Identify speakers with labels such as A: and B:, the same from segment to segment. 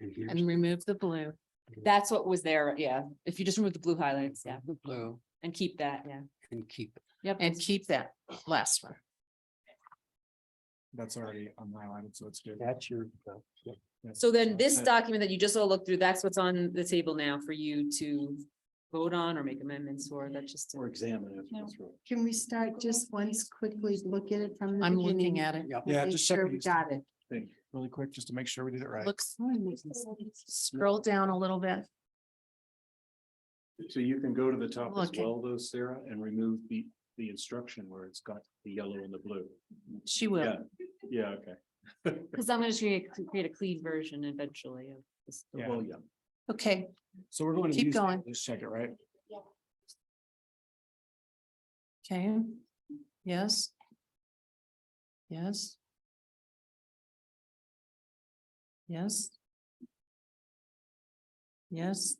A: and remove the blue.
B: That's what was there, yeah. If you just remove the blue highlights, yeah,
A: The blue
B: and keep that, yeah.
A: and keep,
B: Yep.
A: and keep that last one.
C: That's already on my line, so it's good.
D: That's your. uh,
B: So then this
C: Uh,
B: document that you just all looked through, that's what's on the table now for you to vote on or make amendments for. That's just.
D: Or examine it.
E: No. Can we start just once quickly, look at it from the
A: I'm looking
E: beginning?
A: at it.
C: Yeah,
E: Make
C: just check
E: sure
C: it
E: we
C: is.
E: got it.
C: Think really quick, just to make sure we did it right.
A: Looks,
B: Oh,
A: scroll down a little bit.
D: So you can go to the top as
A: Look at-
D: well though, Sarah, and remove the, the instruction where it's got the yellow and the blue.
A: She will.
D: Yeah. Yeah, okay.
B: Because I'm gonna create, create a clean version eventually of this.
C: Yeah.
D: Well, yeah.
A: Okay,
C: So we're going to.
A: Keep
C: use that.
A: going.
C: Let's check it, right?
A: okay. Yes. Yes. Yes. Yes.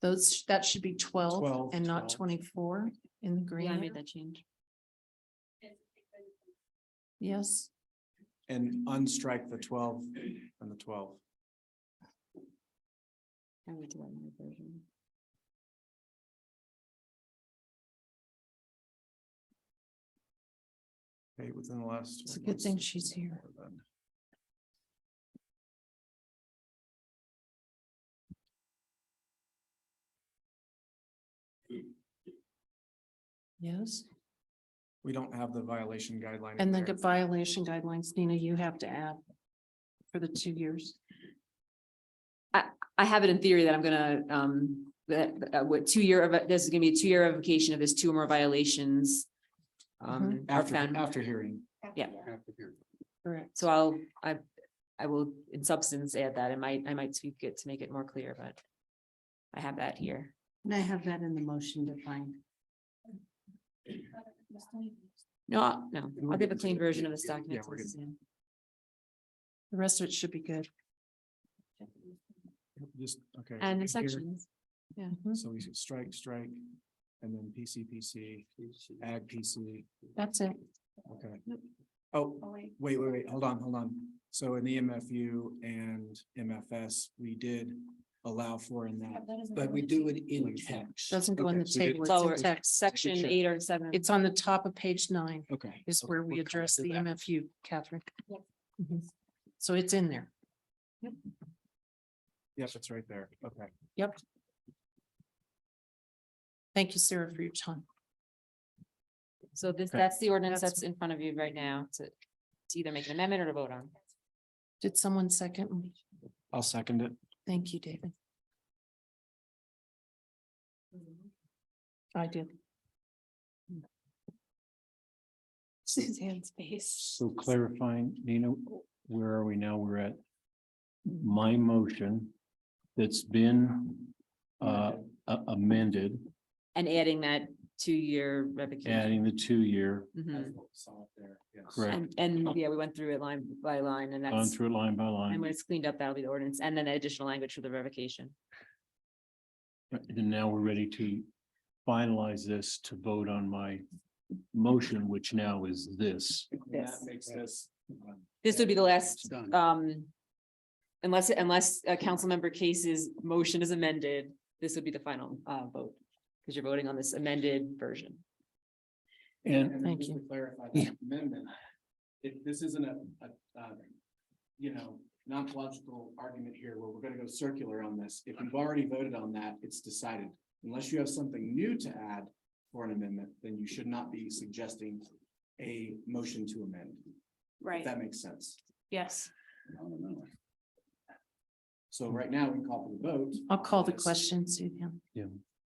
A: Those, sh- that should be twelve
C: 12,
A: and not
C: 12.
A: twenty-four in the green.
B: Yeah, I
A: area.
B: made that change.
A: Yes,
C: And unstrike the twelve and the twelve.
B: I would do that in my version.
C: Okay, within the last.
A: It's a good thing she's here. yes.
C: We don't have the violation guideline. in
A: And then
C: there.
A: the violation guidelines, Nina, you have to add for the two years.
B: I have it in theory that I'm gonna, um, that, uh, what, two year, of this is gonna be a two year revocation of this two or more violations. Um, are
C: Mm-hmm. After,
A: Mhm.
B: found,
C: after hearing.
A: Correct.
B: so I'll, I, I will in substance add that. I might, I might tweak it to make it more clear, but. I have that here.
E: And I have that in the motion defined.
B: No, no,
C: we're
B: I'll give a
C: getting to
B: clean
C: it.
B: version of this
C: Yeah,
B: document.
C: yeah, we're
B: to
C: getting-
B: Suzanne.
A: The rest of it should be good.
C: Just, okay.
B: And the
C: here.
B: sections.
A: Mhm.
C: So we should strike, strike, and then PC, PC, ag, PC,
A: That's it.
C: okay. Oh, wait, wait, wait, hold on, hold on. So in the MFU and MFS, we did allow for in that.
E: But we
C: do it in text.
A: Doesn't go on the table.
B: Lower
A: It's in text.
B: section eight or seven.
A: It's on the top of page nine
C: Okay.
A: is where we
C: Oh, We're
A: address the
C: covered with
A: MFU, Catherine.
B: Yep.
A: Mhm. So it's in there.
C: that. Yes, it's right there. Okay.
A: Thank you, Sarah, for your time.
B: So this,
C: Okay.
B: that's the ordinance
A: That's-
B: that's in front of you right now to, to either make an amendment or to vote on.
A: Did someone second?
C: I'll second it.
A: Thank you, David.
C: Mm-hmm.
A: I did.
E: Suzanne's face.
D: So clarifying, Nina, where are we now? We're at my motion that's been uh a- amended,
B: And adding that two-year revocation.
D: adding the two-year,
A: Hmm.
B: Mhm.
D: correct,
B: And, and yeah, we went through it line by line and
D: gone
B: that's,
D: through it line by
B: and when
D: line.
B: it's cleaned up, that'll be the ordinance and then the additional language for the revocation.
D: And now we're ready to finalize this to vote on my motion, which now is this.
B: Yes.
C: makes this. um,
B: This would be the last,
C: done.
B: um, unless, unless a council member case's motion is amended, this would be the final, uh, vote. Because you're voting on this amended version.
D: And
C: And then
A: Thank
C: just to
A: you.
C: clarify
D: Yeah.
C: that amendment. If this isn't a, a, um, you know, non-logical argument here where we're gonna go circular on this. If we've already voted on that, it's decided. Unless you have something new to add for an amendment, then you should not be suggesting a motion to amend. If
E: Right,
C: that makes sense.
E: yes.
C: So right now, we call for the vote.
A: I'll call the
C: Yes.
A: question, Suzanne.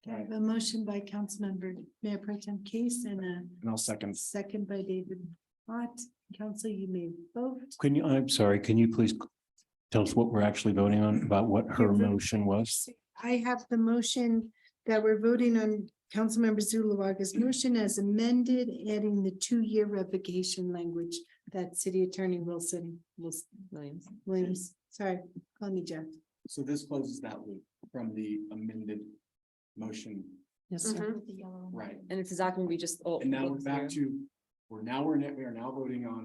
E: I have a motion by Councilmember Mayor Pro Tem Case and a
C: And I'll second.
E: second by David Ott. Council, you may vote.
D: can you, I'm sorry, can you please tell us what we're actually voting on, about what her
E: It's a-
D: motion was?
E: I have the motion that we're voting on Councilmember Zuluaga's motion as amended, adding the two-year revocation language that City Attorney Wilson, Wilson,
B: Williams,
E: Williams, sorry, call me Jeff.
C: So this closes that loop from the amended motion,
A: Yes, sir.
C: right?
B: and it's a document we just. all
C: And now we're
B: looked through.
C: back to, we're now, we're, in it. we are now voting on